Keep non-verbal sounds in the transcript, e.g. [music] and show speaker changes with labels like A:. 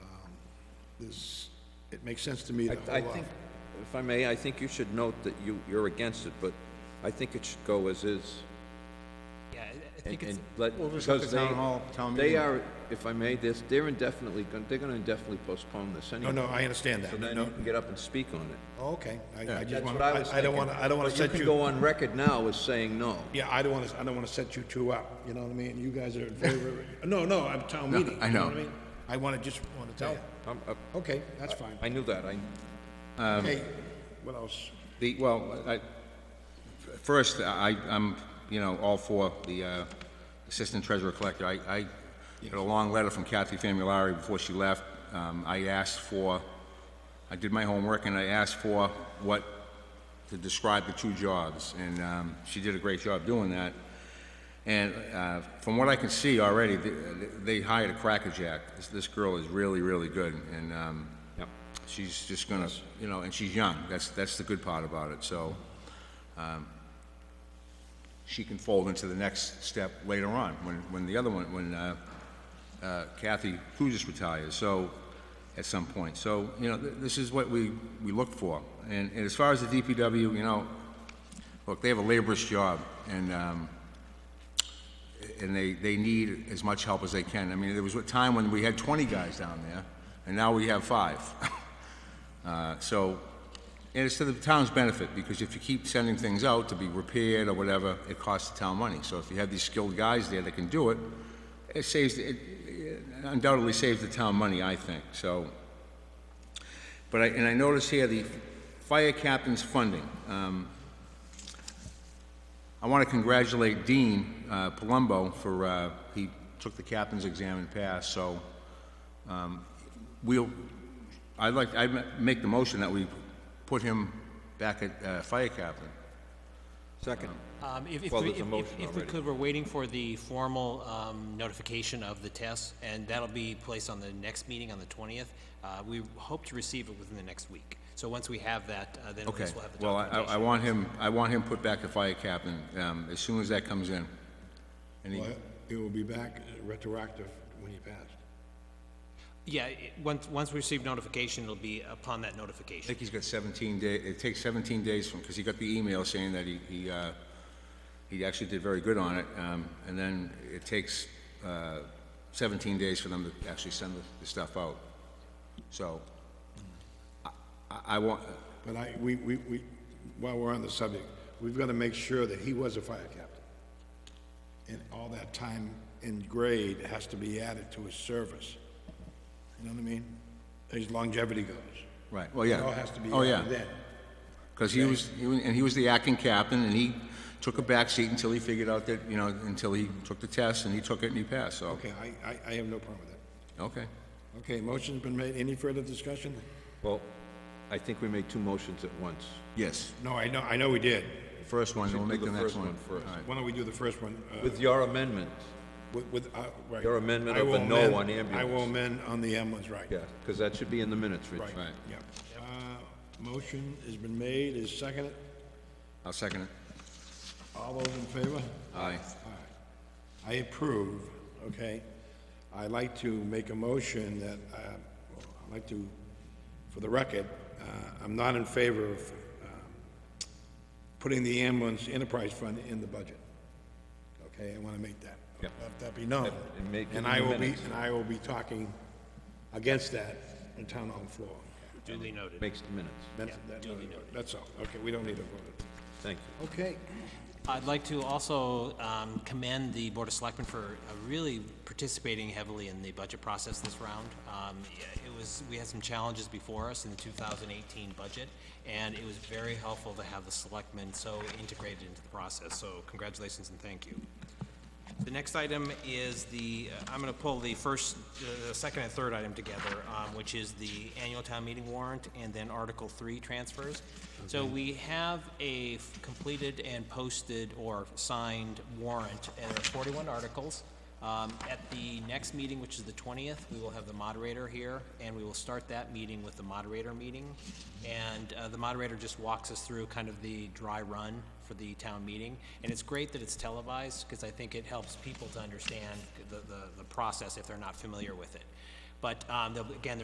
A: Um, This, it makes sense to me to
B: I,
A: hold
B: I
A: off.
B: think,
A: uh,
B: if I may, I think you should note that you, you're against it, but I think it should go as is.
C: Yeah, I- I
B: and-
C: think it's,
B: and let-
D: We'll just let
B: because
D: the town
B: they-
D: hall, town
B: They
D: meeting.
B: are, if I may, they're, they're indefinitely, gon- they're gonna indefinitely postpone this
A: No,
B: anyway.
A: no, I understand
B: So
A: that.
B: then
A: No,
B: you can get up and speak on it.
A: oh, okay. I, I just
B: That's
A: want,
B: what I
A: I
B: was
A: I don't
B: thinking.
A: want, I don't want to
B: But
A: set
B: You can go
A: you,
B: on record now as saying no.
A: yeah, I don't want to, I don't want to set you two up, you know what I mean? You guys are in favor
B: [laughs]
A: of, it. no, no, I'm town
B: No,
A: meeting.
B: I
A: you
B: know.
A: what mean? I want to just, want to tell you.
B: I'm- I-
A: Okay, that's fine.
B: I knew that, I, um,
A: Okay, what else?
D: The, well, I, first, I, I'm, you know, all for the uh, Assistant Treasurer Collector. I, I got a long letter from Kathy Famulari before she left. Um, I asked for, I did my homework, and I asked for what, to describe the two jobs, and um, she did a great job doing that. And uh, from what I can see already, th- they hired a crackerjack. This- This girl is really, really good, and um,
B: Yep.
D: she's just gonna, you know, and she's young. That's, that's the good part about it, so um, she can fold into the next step later on, when, when the other one, when uh, uh, Kathy Kuzis retires, so, at some point. So, you know, th- this is what we, we look for. And and as far as the DPW, you know, look, they have a laborious job, and, um, and they, they need as much help as they can. I mean, there was a time when we had 20 guys down there, and now we have five. [laughs] Uh, So, and it's to the town's benefit, because if you keep sending things out to be repaired or whatever, it costs the town money. So if you have these skilled guys there that can do it, it saves, it undoubtedly saves the town money, I think, so. But I, and I notice here the fire captain's funding. um, I want to congratulate Dean uh, Palumbo for, uh, he took the captain's exam and passed, so um, we'll, I'd like, i make the motion that we put him back at uh, fire captain.
B: Second.
C: um, if, if,
B: Well,
C: we-
B: there's a
C: if-
B: motion
C: if, if we
B: already.
C: could, we're waiting for the formal, um, notification of the test, and that'll be placed on the next meeting on the twentieth. Uh, we hope to receive it within the next week. So once we have that, uh, then at
D: Okay,
C: least we'll have the
D: well, I,
C: documentation.
D: I want him, I want him put back to fire captain um, as soon as that comes in. And he-
A: Well, It will be back uh, retroactive when you pass.
C: Yeah, it- once, once we receive notification, it'll be upon that
D: I
C: notification.
D: think he's got 17 day, it takes 17 days from, because he got the email saying that he, he, uh, he actually did very good on it, um, and then it takes, uh, 17 days for them to actually send the- the stuff out. So, I, I- I want,
A: But I, we, we, we, while we're on the subject, we've got to make sure that he was a fire captain. And all that time in grade has to be added to his service. You know what I mean? His longevity goes.
D: right, well,
A: It
D: yeah.
A: all has to be
D: Oh, yeah.
A: added then.
D: Because he was, he was- and he was the acting captain, and he took a backseat until he figured out that, you know, until he took the test, and he took it and he passed, so,
A: Okay, I, I, I have no problem with that.
D: okay.
A: Okay, motion's been made. Any further discussion?
B: Well, I think we made two motions at once.
D: Yes,
A: No, I know, I know we did.
D: first one, we'll
B: do
D: make the
B: the
D: next
B: first
D: one.
B: one first.
D: All right.
A: Why don't we do the first one? uh,
B: With your amendment,
A: With, with, uh, right.
B: Your amendment
A: I
B: of the
A: will
B: no
A: amend-
B: on
A: I
B: ambulance.
A: will amend on the ambulance, right.
B: yeah, because that should be in the minutes, Rich.
A: Right,
D: Right.
A: yeah. Uh, Motion has been made, is seconded.
D: I'll second it.
A: All those in favor?
D: Aye.
A: I approve, okay? I'd like to make a motion that, uh, I'd like to, for the record, uh, I'm not in favor of um, putting the ambulance enterprise fund in the budget. Okay, I want to make that.
B: Yep.
A: Let that be known.
B: And make it in
A: I
B: the
A: will be,
B: minutes.
A: and I will be talking against that on town hall floor.
C: Duly noted.
B: Makes the minutes.
A: That's, that- that's all. Okay, we don't need to vote.
B: Thank you.
A: Okay.
C: I'd like to also um, commend the Board of Selectmen for uh, really participating heavily in the budget process this round. Um, yeah, It was, we had some challenges before us in the 2018 budget, and it was very helpful to have the selectmen so integrated into the process, so congratulations and thank you. The next item is the, uh, I'm going to pull the first, the second and third item together, um, which is the annual town meeting warrant and then Article Three transfers. So we have a f- completed and posted or signed warrant, and there are forty-one articles. Um, At the next meeting, which is the 20th, we will have the moderator here, and we will start that meeting with the moderator meeting. And uh, the moderator just walks us through kind of the dry run for the town meeting. And it's great that it's televised, because I think it helps people to understand the- the the process if they're not familiar with it. But um, there'll be- again,